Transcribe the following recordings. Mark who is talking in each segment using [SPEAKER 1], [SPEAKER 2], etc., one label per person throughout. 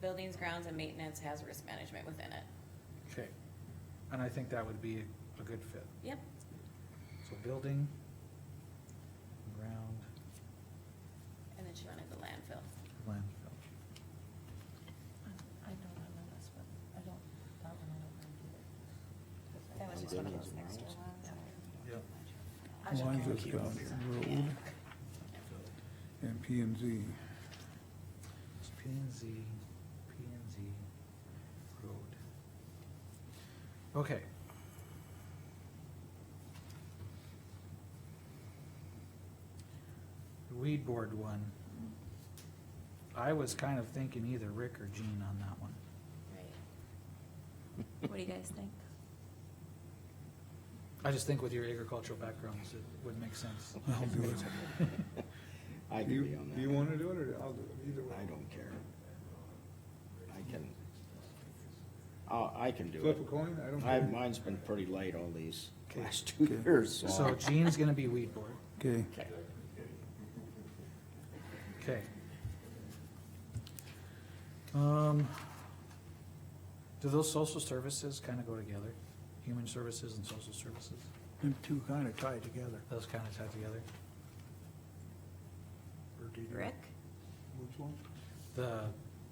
[SPEAKER 1] buildings, grounds, and maintenance has risk management within it.
[SPEAKER 2] Okay, and I think that would be a good fit.
[SPEAKER 1] Yep,
[SPEAKER 2] So building, ground,
[SPEAKER 1] and then she wanted the landfill.
[SPEAKER 2] landfill.
[SPEAKER 3] I don't remember this one, I don't, that one I don't remember
[SPEAKER 4] That
[SPEAKER 3] either.
[SPEAKER 4] was just one of those next door ones.
[SPEAKER 2] Yep.
[SPEAKER 3] I don't
[SPEAKER 5] Mine
[SPEAKER 3] know.
[SPEAKER 5] just got road and P and Z.
[SPEAKER 2] It's P and Z, P and Z, road. Okay. The Weed board one. I was kind of thinking either Rick or Jean on that one.
[SPEAKER 3] What do you guys think?
[SPEAKER 2] I just think with your agricultural backgrounds, it would make sense.
[SPEAKER 5] I'll do it.
[SPEAKER 4] I
[SPEAKER 5] You-
[SPEAKER 4] can be on that.
[SPEAKER 5] You wanna do it or I'll do it, either way.
[SPEAKER 4] I don't care. I can, oh, I can do
[SPEAKER 5] Flip a
[SPEAKER 4] it.
[SPEAKER 5] coin, I don't
[SPEAKER 4] I,
[SPEAKER 5] care.
[SPEAKER 4] mine's been pretty light all these
[SPEAKER 5] Okay.
[SPEAKER 4] last two
[SPEAKER 5] Okay.
[SPEAKER 4] years,
[SPEAKER 2] So
[SPEAKER 4] so.
[SPEAKER 2] Jean's gonna be weed board.
[SPEAKER 5] Okay,
[SPEAKER 4] Okay.
[SPEAKER 2] Okay. Um, do those social services kinda go together? Human services and social services?
[SPEAKER 5] them two kinda tied together.
[SPEAKER 2] Those kinda tie together?
[SPEAKER 5] Or do you-
[SPEAKER 1] Rick?
[SPEAKER 5] Which one?
[SPEAKER 2] The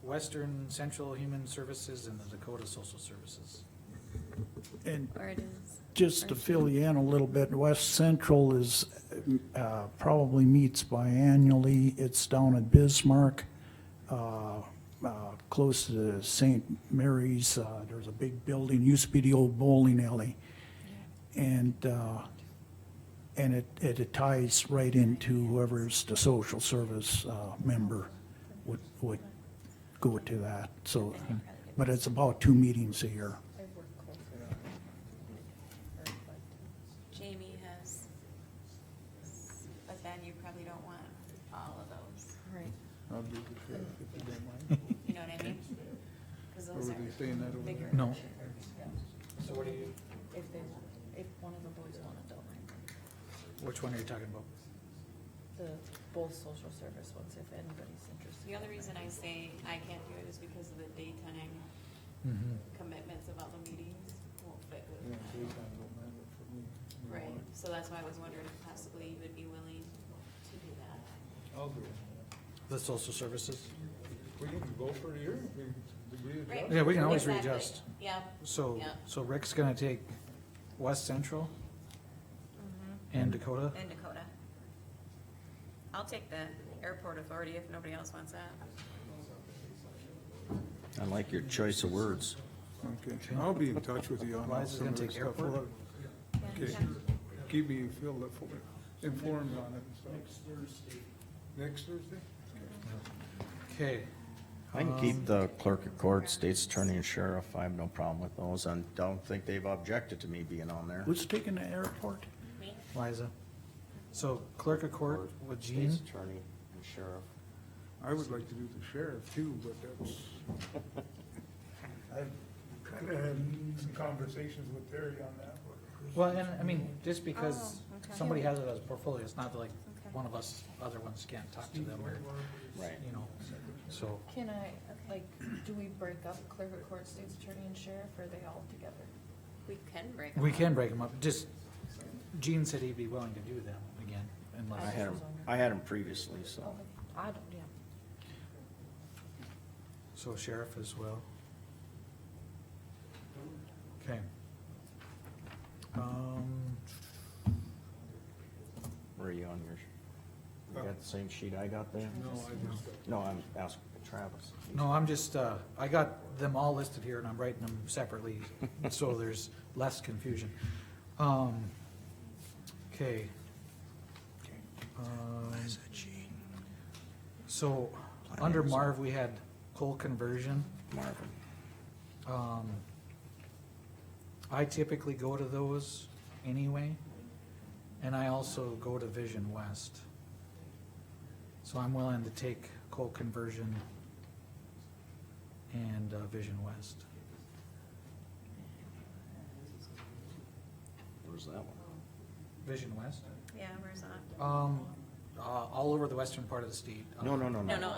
[SPEAKER 2] Western Central Human Services and the Dakota Social Services.
[SPEAKER 6] And
[SPEAKER 1] Or it is.
[SPEAKER 6] just to fill you in a little bit, West Central is, uh, probably meets biannually. It's down at Bismarck, uh, uh, close to St. Mary's. Uh, There's a big building, used to be the old bowling alley. And, uh, and it, it ties right into whoever's the social service uh, member would, would go to that, so. But it's about two meetings a year.
[SPEAKER 3] I work closely with her, but
[SPEAKER 1] Jamie has, but then you probably don't want all of those,
[SPEAKER 5] I'll do the sheriff if you don't mind.
[SPEAKER 1] you know what I mean? Cause
[SPEAKER 5] Or
[SPEAKER 1] those
[SPEAKER 5] were they
[SPEAKER 1] are
[SPEAKER 5] saying that over
[SPEAKER 1] bigger.
[SPEAKER 5] there?
[SPEAKER 2] No.
[SPEAKER 3] So what do you? If they, want- if one of the boys wanted to,
[SPEAKER 2] Which one are you talking about?
[SPEAKER 3] the, both social service ones, if anybody's interested.
[SPEAKER 1] The other reason I say I can't do it is because of the daytime
[SPEAKER 2] Mm-hmm.
[SPEAKER 1] commitments of all the meetings won't fit
[SPEAKER 5] Yeah,
[SPEAKER 1] with
[SPEAKER 5] three
[SPEAKER 1] mine.
[SPEAKER 5] times don't matter for me. You know,
[SPEAKER 1] Right, so that's why I was wondering if possibly you would be willing to do that.
[SPEAKER 5] I'll do it.
[SPEAKER 2] The social services?
[SPEAKER 5] We can go for a year, we can agree to
[SPEAKER 1] Right?
[SPEAKER 5] that.
[SPEAKER 2] Yeah, we can always
[SPEAKER 1] Exactly.
[SPEAKER 2] readjust.
[SPEAKER 1] Yeah.
[SPEAKER 2] So,
[SPEAKER 1] Yeah.
[SPEAKER 2] so Rick's gonna take West Central and Dakota?
[SPEAKER 1] Mm-hmm. And Dakota. I'll take the airport authority if nobody else wants that.
[SPEAKER 4] I like your choice of words.
[SPEAKER 5] Okay, I'll be in touch with you on all
[SPEAKER 2] Liza's
[SPEAKER 5] some
[SPEAKER 2] gonna
[SPEAKER 5] of the
[SPEAKER 2] take
[SPEAKER 5] stuff.
[SPEAKER 2] airport.
[SPEAKER 5] Okay, keep me filled up, informed on it and stuff. Next Thursday. Next Thursday?
[SPEAKER 2] Okay.
[SPEAKER 4] I can
[SPEAKER 5] Um,
[SPEAKER 4] keep the clerk of court, state's attorney and sheriff. I have no problem with those. I don't think they've objected to me being on there.
[SPEAKER 6] Who's taking the airport?
[SPEAKER 1] Me?
[SPEAKER 2] Liza. So clerk of court with Jean,
[SPEAKER 4] State's attorney and sheriff.
[SPEAKER 5] I would like to do the sheriff too, but that's. I've kind of had some conversations with Terry on that.
[SPEAKER 2] well, and I mean, just because
[SPEAKER 1] Oh, okay.
[SPEAKER 2] somebody has it as a portfolio, it's not like
[SPEAKER 1] Okay.
[SPEAKER 2] one of us, other ones can't talk to them or,
[SPEAKER 4] Right.
[SPEAKER 2] you know, so.
[SPEAKER 3] Can I, like, do we break up clerk of court, state's attorney and sheriff, or are they all together?
[SPEAKER 1] We can break.
[SPEAKER 2] We
[SPEAKER 1] them
[SPEAKER 2] can
[SPEAKER 1] up.
[SPEAKER 2] break them up, just, Jean said he'd be willing to do them again,
[SPEAKER 4] I
[SPEAKER 2] unless,
[SPEAKER 4] had 'em- I had them previously, so.
[SPEAKER 3] Okay, I don't, yeah.
[SPEAKER 2] so sheriff as well. Okay. Um,
[SPEAKER 4] Were you on yours? You got the same sheet I got there?
[SPEAKER 5] No, I just,
[SPEAKER 4] No, I'm asking Travis.
[SPEAKER 2] No, I'm just, uh, I got them all listed here and I'm writing them separately, so there's less confusion. Um, okay. Um, So, under Marv, we had coal conversion.
[SPEAKER 4] Marvin.
[SPEAKER 2] Um, I typically go to those anyway, and I also go to Vision West. So I'm willing to take coal conversion and uh, Vision West.
[SPEAKER 4] Where's that one?
[SPEAKER 2] Vision West?
[SPEAKER 1] Yeah, where's that?
[SPEAKER 2] Um, uh, all over the western part of the state.
[SPEAKER 4] No, no, no, no.
[SPEAKER 1] No, no,